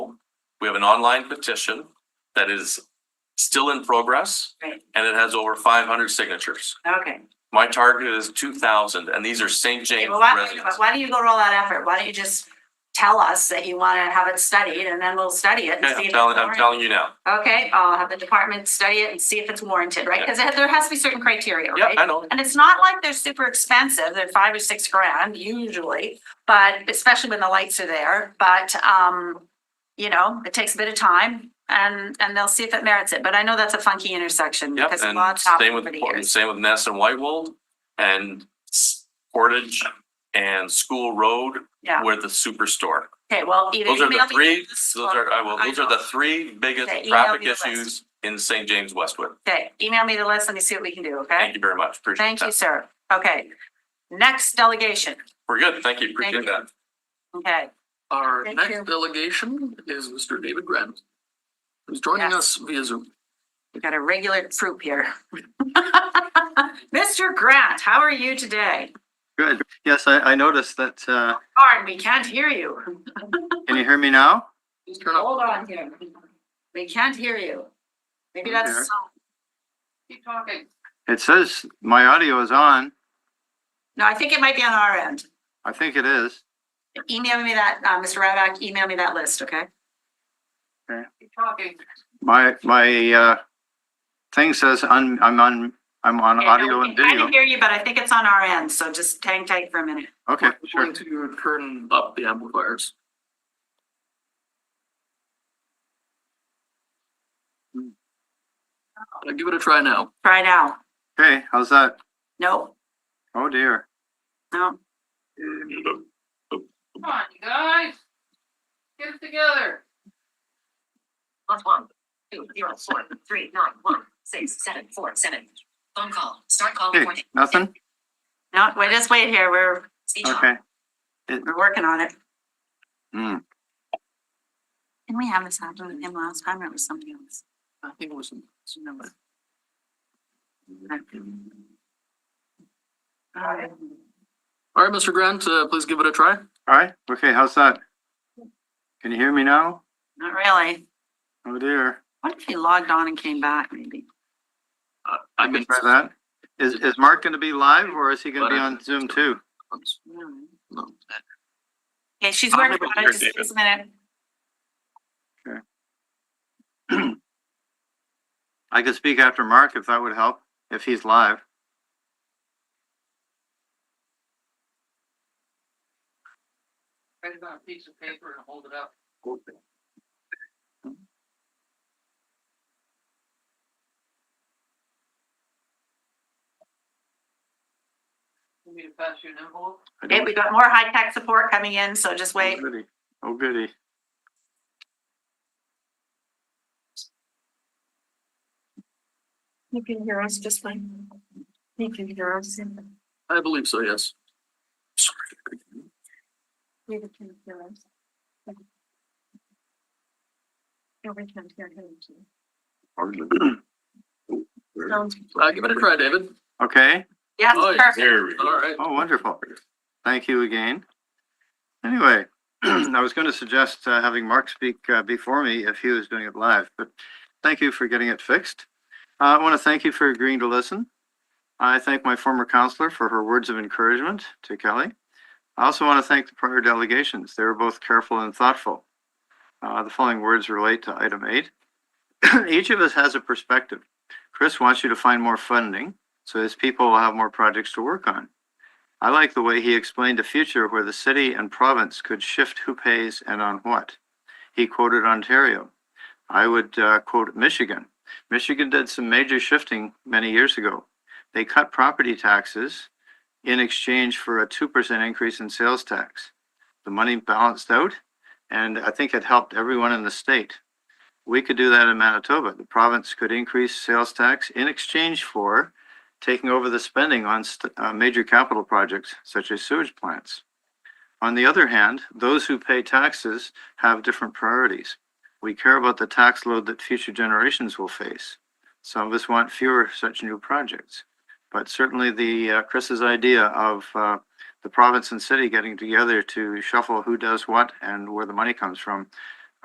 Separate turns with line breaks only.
We have an online petition that is still in progress
Right,
and it has over five hundred signatures.
okay.
My target is two thousand and these are St.
Okay,
James
Well, why,
residents.
why don't you go roll that effort? Why don't you just tell us that you wanna have it studied and then we'll study it and
Okay,
see. if
I'm
it's
telling, I'm
warranted.
telling you now.
Okay, I'll have the department study it and see if it's warranted, right? Cause there has to be certain criteria,
Yeah,
right?
I know.
And it's not like they're super expensive. They're five or six grand usually, but especially when the lights are there, but, um, you know, it takes a bit of time and, and they'll see if it merits it. But I know that's a funky intersection
Yep,
because
and
lots
same
happen
with,
over the
Port-
years.
same with Ness and Whitewold and S- Portage and School Road
Yeah.
where the superstore.
Okay, well, either
Those are
email
the
me
three,
this
those are,
or-
I will, those are the three
Okay,
biggest
email me
traffic
the list.
issues in St. James Westwood.
Okay, email me the list. Let me see what we can do, okay?
Thank you very much. Appreciate
Thank you,
that.
sir. Okay. Next delegation,
We're good. Thank you.
Thank
Appreciate
you.
that.
okay.
Our
Thank you.
next delegation is Mr. David Grant, who's joining
Yes.
us via Zoom.
We've got a regular troop here. Mr. Grant, how are you today?
Good. Yes, I, I noticed that, uh,
Darn, we can't hear you.
can you hear me now?
Turn up.
Hold on here. We can't hear you. Maybe that's. a
There.
sign. Keep talking.
It says my audio is on.
No, I think it might be on our end.
I think it is.
Email me that, uh, Mr. Radak, email me that list, okay?
Okay.
Keep talking.
My, my, uh, thing says on, I'm on, I'm on
Okay, no,
audio
we
and
can kinda
video.
Hear you, but I think it's on our end, so just hang tight for a minute.
Okay,
We're
sure.
going to turn up the amplifiers. I'll Hmm. give it a try now.
Try now.
Okay, how's that?
No,
Oh dear.
no.
Come on, you guys. Get it together.
One, one, two, zero, four, three, nine, one, six, seven, four, seven. Phone call, start call
Okay,
recording.
nothing?
No, wait, just wait here. We're,
Speech off.
Okay.
we're working on it.
Hmm.
Didn't we have this happen with him last time or it was something else?
I think it was,
Um,
all right, Mr. Grant, uh, please give it a try.
All right. Okay, how's that? Can you hear me now?
Not really.
Oh dear.
What if he logged on and came back maybe?
Uh, I
I can
mean,
try that. Is, is Mark going to be live or is he going to be on Zoom too?
no.
Okay, she's
I'm
working
over
on
here,
it. Just give us a minute.
I could speak after Mark if that would help, if he's live.
Write it on a piece of paper and hold it up. You need to pass you an envelope?
I
Okay,
don't-
we got more high-tech support coming in, so just wait.
Oh goody. Oh goody.
You can hear us just fine. You can hear us. You
I believe so, yes.
can hear us. No, we can hear him too. Sounds
Uh, give it a try, David.
Okay.
Yes,
Oh,
perfect.
All right.
Oh, wonderful. Thank you again. Anyway, I was going to suggest uh, having Mark speak uh, before me if he was doing it live, but thank you for getting it fixed. Uh, I want to thank you for agreeing to listen. I thank my former counselor for her words of encouragement to Kelly. I also want to thank the prior delegations. They were both careful and thoughtful. Uh, The following words relate to item eight. Each of us has a perspective. Chris wants you to find more funding so his people will have more projects to work on. I like the way he explained a future where the city and province could shift who pays and on what. He quoted Ontario. I would uh, quote Michigan. Michigan did some major shifting many years ago. They cut property taxes in exchange for a 2% increase in sales tax. The money balanced out, and I think it helped everyone in the state. We could do that in Manitoba. The province could increase sales tax in exchange for taking over the spending on st- uh, major capital projects such as sewage plants. On the other hand, those who pay taxes have different priorities. We care about the tax load that future generations will face. Some of us want fewer such new projects. But certainly the uh, Chris's idea of uh, the province and city getting together to shuffle who does what and where the money comes from